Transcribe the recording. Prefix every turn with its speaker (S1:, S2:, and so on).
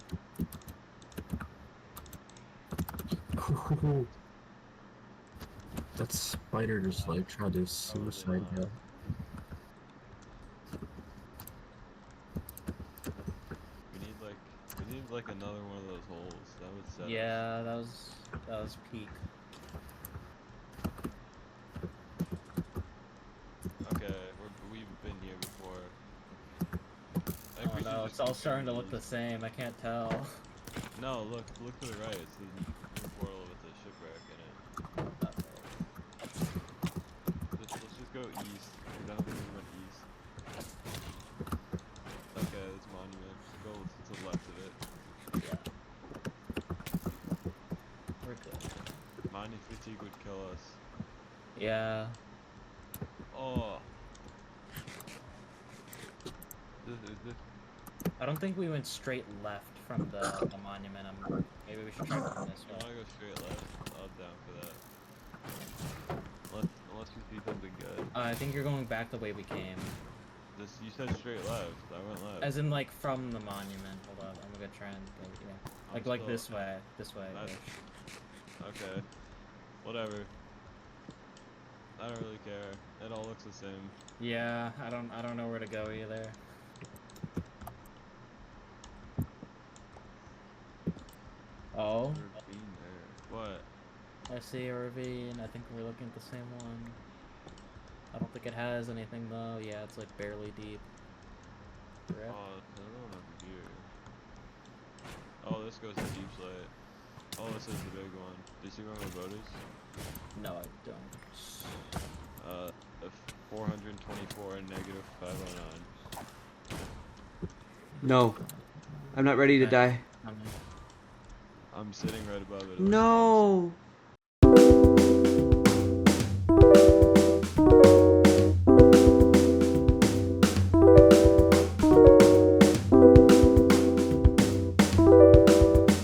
S1: That spider just like tried to suicide him.
S2: We need like we need like another one of those holes. That would set. us.
S3: Yeah, that was that was peak.
S2: Okay, we're, we've been here before. I think
S3: Oh
S2: we should
S3: no,
S2: just
S3: it's all
S2: keep
S3: starting to look the
S2: going.
S3: same. I can't tell.
S2: No, look, look to the right. It's the new portal with the shipwreck in it. Let's, let's just go east. We don't have to run east. Okay, this monument. Go to the left of it.
S3: We're good.
S2: Mining fatigue would kill us.
S3: Yeah.
S2: Oh. This, this,
S3: I don't think we went straight left from the, the monument. I'm, maybe we should try from this
S2: I
S3: way.
S2: wanna go straight left. I'm down for that. Unless, unless you see something good.
S3: Uh, I think you're going back the way we came.
S2: This, you said straight left. I went left.
S3: As in, like, from the monument. Hold up, I'm gonna try and think, yeah.
S2: I'm
S3: Like, like
S2: still-
S3: this way. This way.
S2: That's-
S3: Rich.
S2: Okay. Whatever. I don't really care. It all looks the same.
S3: Yeah, I don't, I don't know where to go either. Oh,
S2: Never been there. What?
S3: I see a ravine. I think we're looking at the same one. I don't think it has anything though. Yeah, it's like barely deep.
S2: Oh,
S3: Rip.
S2: another one over here. Oh, this goes to deep slate. Oh, this is the big one. Do you see where my boat is?
S3: No, I don't.
S2: Uh, a f- 424 and negative 509.
S4: No, I'm not ready to
S3: Okay.
S4: die.
S3: I'm
S2: I'm sitting right above it. it looks
S4: No,